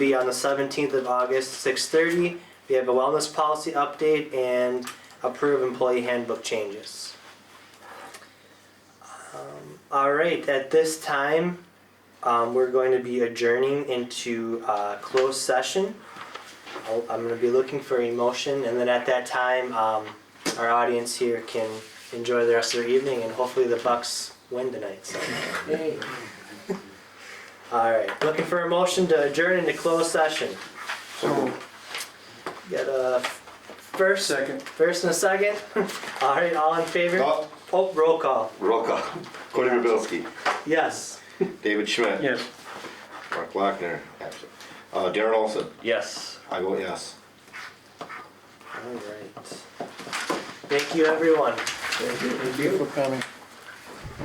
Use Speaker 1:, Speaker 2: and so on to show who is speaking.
Speaker 1: be on the 17th of August, 6:30. We have a wellness policy update and approve employee handbook changes. Um, All right, at this time, um, we're going to be adjourning into uh, closed session. I'll- I'm going to be looking for a motion, and then at that time, um, our audience here can enjoy the rest of their evening, and hopefully the Bucks win tonight, so. All right, looking for a motion to adjourn into closed session. Got a first?
Speaker 2: Second.
Speaker 1: First and a second? All right, all in favor?
Speaker 3: Oh,
Speaker 1: Oh, roll call,
Speaker 3: roll call. Cody Rubelski,
Speaker 1: yes.
Speaker 3: David Schmidt.
Speaker 2: Yes.
Speaker 3: Mark Lochner, absent. Uh, Darren Olson,
Speaker 2: Yes.
Speaker 3: I vote yes.
Speaker 1: All right. Thank you, everyone.
Speaker 2: Thank you for coming.